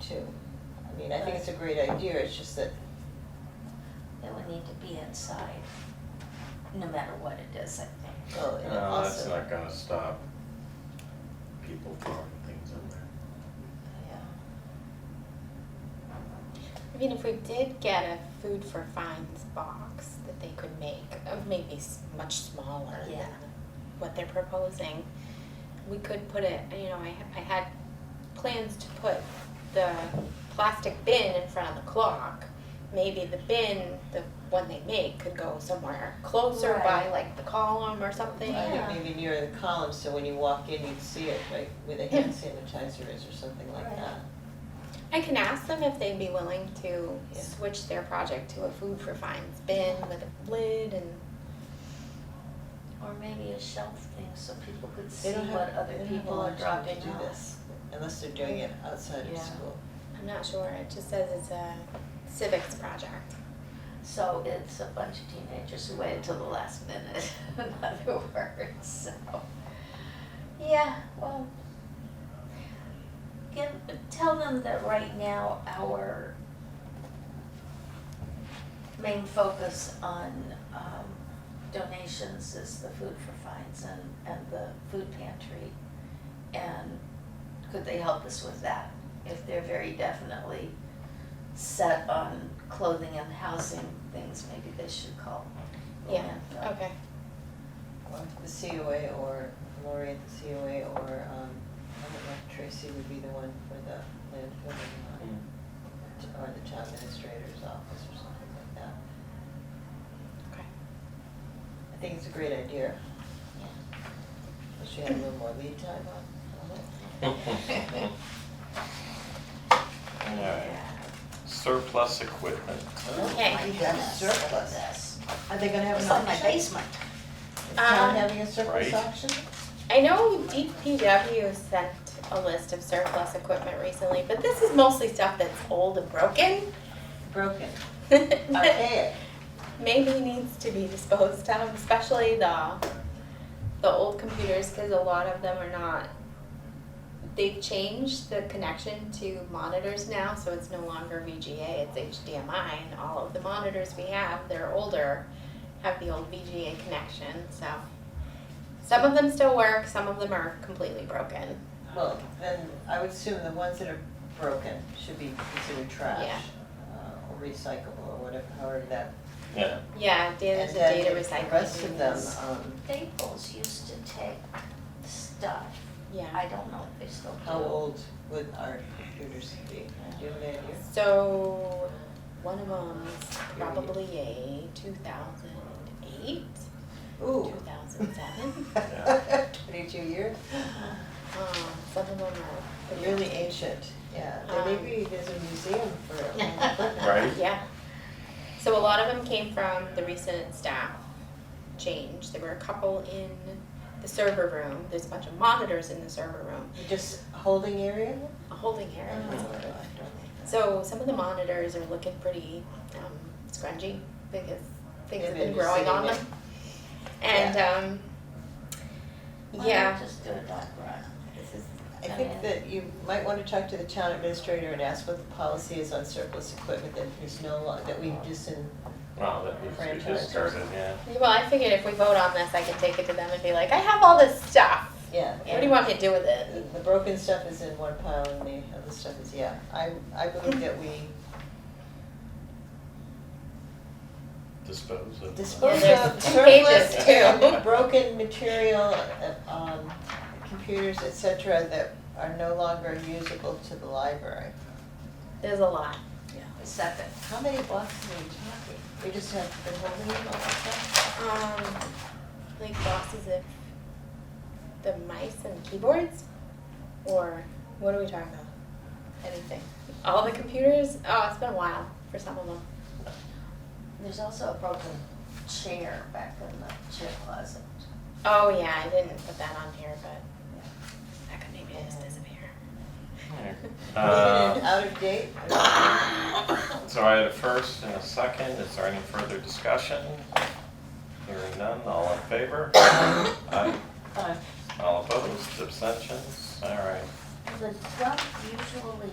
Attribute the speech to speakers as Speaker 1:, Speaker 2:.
Speaker 1: too. I mean, I think it's a great idea, it's just that,
Speaker 2: It would need to be inside, no matter what it is, I think.
Speaker 1: well, and
Speaker 3: No, that's
Speaker 1: also,
Speaker 3: not gonna stop people throwing things in there.
Speaker 2: Yeah.
Speaker 4: I mean, if we did get a food for fines box that they could make, of maybe s- much smaller
Speaker 2: Yeah.
Speaker 4: than what they're proposing, we could put it, you know, I, I had plans to put the plastic bin in front of the clock. Maybe the bin, the one they make, could go somewhere closer by
Speaker 2: Right.
Speaker 4: like the column or
Speaker 1: I
Speaker 4: something.
Speaker 2: Yeah.
Speaker 1: think maybe near the column, so when you walk in, you'd see it, like, where the hand sanitizer is or something like
Speaker 2: Right.
Speaker 1: that.
Speaker 4: I can ask them if they'd be willing to
Speaker 1: Yeah.
Speaker 4: switch their project to a food for fines bin with a lid and
Speaker 2: Or maybe a shelf thing so people could see
Speaker 1: They don't have-
Speaker 2: what other
Speaker 1: they don't have a
Speaker 2: people
Speaker 1: lot
Speaker 2: are
Speaker 1: of time
Speaker 2: dropping off.
Speaker 1: to do this, unless they're doing it outside of
Speaker 2: Yeah.
Speaker 1: school.
Speaker 4: I'm not sure. It just says it's a civics project.
Speaker 2: So it's a bunch of teenagers who waited till the last minute, in other words, so. Yeah, well. Give, tell them that right now our main focus on um donations is the food for fines and and the food pantry. And could they help us with that? If they're very definitely set on clothing and housing things, maybe they should call. the
Speaker 4: Yeah.
Speaker 2: landfill.
Speaker 4: Okay.
Speaker 1: Or the COA or Lori at the COA or, um, I don't know if Tracy would be the one for the landfill or not. t- or the town administrator's office or something like that.
Speaker 4: Okay.
Speaker 1: I think it's a great idea,
Speaker 2: Yeah.
Speaker 1: but she had a little more lead time on, on it.
Speaker 3: Alright, surplus equipment.
Speaker 4: Okay.
Speaker 2: Oh My
Speaker 1: You got
Speaker 2: goodness,
Speaker 1: surplus.
Speaker 2: look at this.
Speaker 1: Are they gonna have
Speaker 2: It's
Speaker 1: an
Speaker 2: like my
Speaker 1: auction? Is
Speaker 2: basement.
Speaker 1: town
Speaker 4: Um,
Speaker 1: having a surplus
Speaker 3: Right.
Speaker 1: auction?
Speaker 4: I know DPW sent a list of surplus equipment recently, but this is mostly stuff that's old and broken.
Speaker 1: Broken,
Speaker 4: that
Speaker 1: archaic,
Speaker 4: Maybe needs to be disposed of, especially the the old computers, because a lot of them are not. They've changed the connection to monitors now, so it's no longer VGA, it's HDMI, and all of the monitors we have, they're older, have the old VGA connection, so. Some of them still work, some of them are completely broken.
Speaker 1: well, then I would assume the ones that are broken should be considered trash.
Speaker 4: Yeah.
Speaker 1: uh, Or recyclable or whatever, however that.
Speaker 3: Yeah,
Speaker 4: Yeah, data,
Speaker 1: And
Speaker 4: the
Speaker 1: then
Speaker 4: data
Speaker 1: The
Speaker 4: recycling.
Speaker 1: rest of them,
Speaker 4: is-
Speaker 1: um,
Speaker 2: Staples used to take stuff.
Speaker 4: Yeah,
Speaker 2: I don't know if they still do.
Speaker 1: how old would our computers be? Do you have any idea?
Speaker 4: so one of them's probably a two thousand eight.
Speaker 1: Ooh.
Speaker 4: 2007.
Speaker 1: Twenty-two years?
Speaker 4: Um, some of them are pretty-
Speaker 1: Really ancient, yeah. There
Speaker 4: Um,
Speaker 1: Maybe there's a museum for it.
Speaker 3: right?
Speaker 4: Yeah. So a lot of them came from the recent staff change. There were a couple in the server room. There's a bunch of monitors in the server room,
Speaker 1: Just holding area?
Speaker 4: a holding area.
Speaker 1: Oh, I don't like that.
Speaker 4: So some of the monitors are looking pretty um, scrungy because things have
Speaker 1: Maybe
Speaker 4: been
Speaker 1: they're just
Speaker 4: growing on
Speaker 1: sitting
Speaker 4: them. And um,
Speaker 2: Why not
Speaker 4: yeah,
Speaker 2: just do a dog run? This is,
Speaker 1: I
Speaker 2: I
Speaker 1: think
Speaker 2: mean-
Speaker 1: that you might want to talk to the town administrator and ask what the policy is on surplus equipment that is no lo- that we just in,
Speaker 3: Wow, that needs to be
Speaker 1: Franchise.
Speaker 3: discarded, yeah.
Speaker 4: well, I figured if we vote on this, I could take it to them and be like, I have all this stuff.
Speaker 1: yeah. Uh,
Speaker 4: What do you want me to do with it?
Speaker 1: The the broken stuff is in one pile and the other stuff is, yeah. I, I believe that we
Speaker 3: Dispose of.
Speaker 1: dispose
Speaker 4: Yeah,
Speaker 1: of
Speaker 4: there's two pages,
Speaker 1: surplus,
Speaker 3: too.
Speaker 1: broken material, uh, um, computers, et cetera, that are no longer usable to the library.
Speaker 4: There's a lot.
Speaker 2: Second.
Speaker 1: How many boxes are we talking? We just have been holding them all the time?
Speaker 4: Um, like boxes of the mice and keyboards, or what are we talking about? Anything. All the computers. Oh, it's been a while for some of them.
Speaker 2: There's also a broken chair back in the chair closet.
Speaker 4: Oh yeah, I didn't put that on here, but that could maybe just disappear.
Speaker 3: Yeah.
Speaker 1: Isn't it
Speaker 3: Uh,
Speaker 1: out of date? I
Speaker 3: so I had a first and a second, is there any further discussion? Hearing none, all in favor? Aye.
Speaker 1: don't know.
Speaker 3: All opposed, abstentions, alright.
Speaker 2: The duck usually